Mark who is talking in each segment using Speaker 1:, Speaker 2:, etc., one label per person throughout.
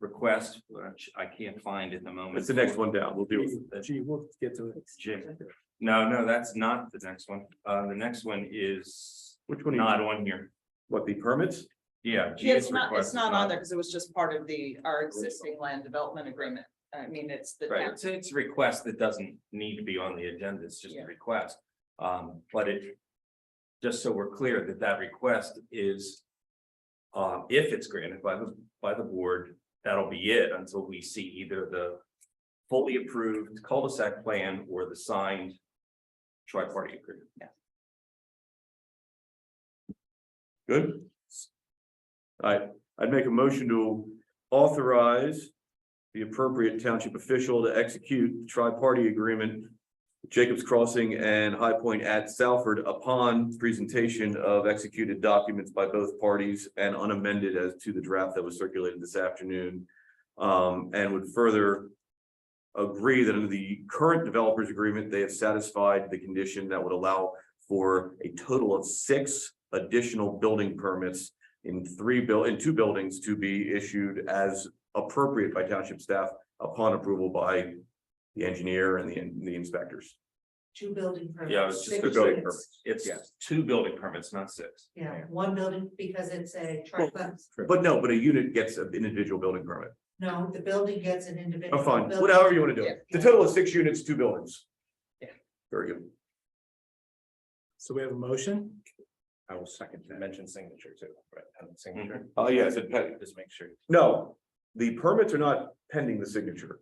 Speaker 1: request, which I can't find at the moment.
Speaker 2: It's the next one down. We'll do it.
Speaker 3: Gee, we'll get to it.
Speaker 1: Jim. No, no, that's not the next one. Uh, the next one is
Speaker 2: Which one?
Speaker 1: not
Speaker 2: are you-
Speaker 1: on here.
Speaker 2: What, the permits?
Speaker 1: Yeah.
Speaker 4: Yeah,
Speaker 1: GS
Speaker 4: It's not,
Speaker 1: request
Speaker 4: it's
Speaker 1: is
Speaker 4: not on there because it was just part of the, our existing land development agreement. I mean, it's the,
Speaker 1: Right,
Speaker 4: town.
Speaker 1: it's, it's a request that doesn't need to be on the agenda, it's just a
Speaker 4: Yeah.
Speaker 1: request. Um, but it, just so we're clear that that request is, um, if it's granted by the, by the board, that'll be it until we see either the fully approved cul-de-sac plan or the signed tri-party agreement.
Speaker 2: Good. I, I'd make a motion to authorize the appropriate township official to execute tri-party agreement. Jacobs Crossing and High Point at Salford upon presentation of executed documents by both parties and unamended as to the draft that was circulated this afternoon. Um, and would further agree that under the current developers agreement, they have satisfied the condition that would allow for a total of six additional building permits in three buil- in two buildings to be issued as appropriate by township staff upon approval by the engineer and the, the inspectors.
Speaker 5: two building permits.
Speaker 1: Yeah, it's just
Speaker 5: six
Speaker 1: the building
Speaker 5: units.
Speaker 1: permits. It's
Speaker 2: Yes.
Speaker 1: two building permits, not six.
Speaker 5: Yeah, one building because it's a triplex.
Speaker 2: But no, but a unit gets an individual building permit.
Speaker 5: No, the building gets an individual.
Speaker 2: I'm fine,
Speaker 5: building.
Speaker 2: whatever you want to do. it. The total is six units, two buildings.
Speaker 4: Yeah.
Speaker 2: Very good.
Speaker 3: So we have a motion.
Speaker 1: I will second that. Mm-hmm. Mention signature too, right? And signature.
Speaker 2: Oh, yes, it pen-
Speaker 1: Just make sure.
Speaker 2: No, the permits are not pending the signature.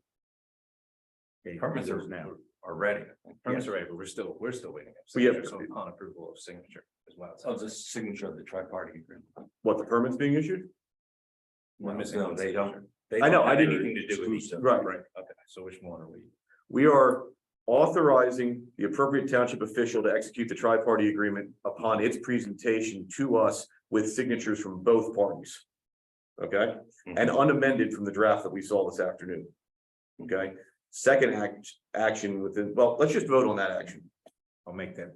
Speaker 1: Permits are now already.
Speaker 2: Permits
Speaker 1: are ready, but we're still, we're still waiting.
Speaker 2: We have- So
Speaker 1: upon approval of signature as well. Of the signature of the tri-party agreement.
Speaker 2: What, the permit's being issued?
Speaker 1: No, no, they don't. they
Speaker 2: I know,
Speaker 1: don't
Speaker 2: I
Speaker 1: have
Speaker 2: didn't-
Speaker 1: anything to do with each other.
Speaker 2: Right, right.
Speaker 1: Okay, so which one are we?
Speaker 2: We are authorizing the appropriate township official to execute the tri-party agreement upon its presentation to us with signatures from both parties. Okay, and unamended from the draft that we saw this afternoon. Okay, second act, action within, well, let's just vote on that action.
Speaker 1: I'll make that.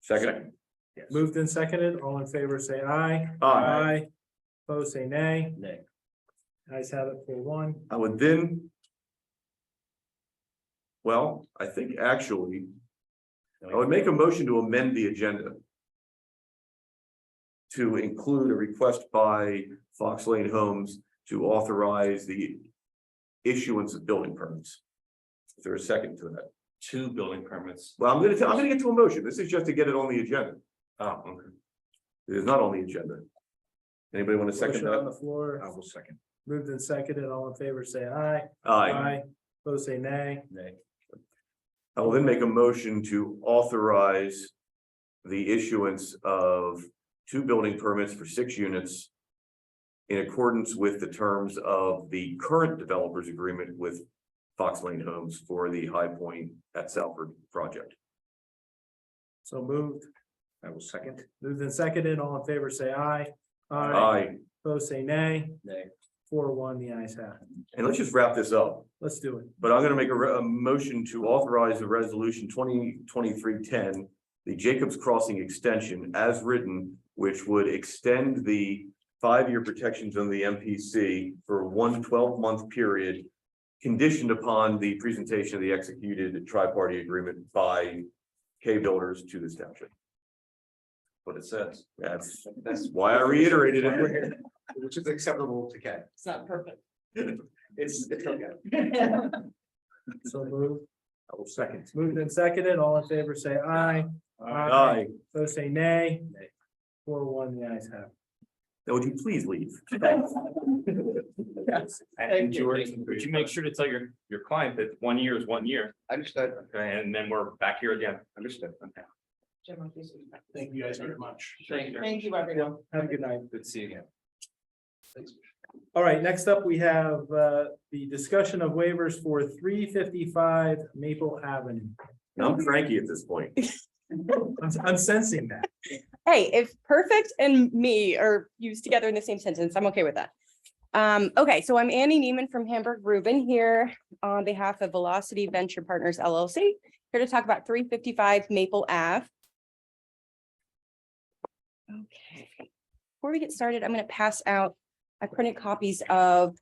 Speaker 2: Second,
Speaker 3: Moved and seconded. All in favor, say aye.
Speaker 2: aye.
Speaker 3: Opposed, say nay.
Speaker 1: Nay.
Speaker 3: Ayes have it for one.
Speaker 2: I would then. Well, I think actually, I would make a motion to amend the agenda. To include a request by Fox Lane Homes to authorize the issuance of building permits. Is there a second to that?
Speaker 1: Two building permits.
Speaker 2: Well, I'm gonna, tell- I'm gonna get to a motion. This is just to get it on the agenda.
Speaker 1: Oh, okay.
Speaker 2: It is not on the agenda. Anybody want to second
Speaker 3: Motion on
Speaker 2: that?
Speaker 3: the floor.
Speaker 1: will second.
Speaker 3: Moved and seconded. All in favor, say aye.
Speaker 2: Aye.
Speaker 3: Opposed, say nay.
Speaker 1: Nay.
Speaker 2: I will then make a motion to authorize the issuance of two building permits for six units in accordance with the terms of the current developers agreement with Fox Lane Homes for the High Point at Salford project.
Speaker 3: So moved.
Speaker 1: I will second.
Speaker 3: Moved and seconded. All in favor, say aye.
Speaker 2: Aye,
Speaker 3: Opposed, say nay.
Speaker 1: Nay.
Speaker 3: Four, one, the ayes have it.
Speaker 2: and let's just wrap this up,
Speaker 3: Let's do it.
Speaker 2: but I'm gonna make a, re- a motion to authorize the resolution twenty twenty-three ten, the Jacobs Crossing extension as written, which would extend the five-year protections on the MPC for one 12 month period conditioned upon the presentation of the executed tri-party agreement by K builders to this township.
Speaker 1: What it says.
Speaker 2: That's, that's why I reiterated it.
Speaker 6: Which is acceptable to Ken.
Speaker 4: it's not perfect.
Speaker 6: It's, it's okay.
Speaker 3: So moved.
Speaker 6: I will second.
Speaker 3: Moved and seconded. All in favor, say aye.
Speaker 2: Aye.
Speaker 3: Those say nay. Four one, the ayes have.
Speaker 2: Now, would you please leave?
Speaker 1: And George, would you make sure to tell your, your client that one year is one year,
Speaker 6: Understood,
Speaker 1: okay, and then we're back here again.
Speaker 6: understood.
Speaker 1: Okay.
Speaker 6: Thank you guys very much.
Speaker 1: Thank you.
Speaker 4: Thank you, everyone.
Speaker 3: Have a good night.
Speaker 1: Good to see you again.
Speaker 3: All right, next up, we have uh the discussion of waivers for three fifty-five Maple Avenue.
Speaker 2: I'm cranky at this point.
Speaker 3: I'm I'm sensing that.
Speaker 7: hey, if perfect and me are used together in the same sentence, I'm okay with that. Um, okay, so I'm Annie Neiman from Hamburg Rubin here on behalf of Velocity Venture Partners LLC, here to talk about three fifty-five Maple Ave. Okay, before we get started, I'm gonna pass out, I printed copies of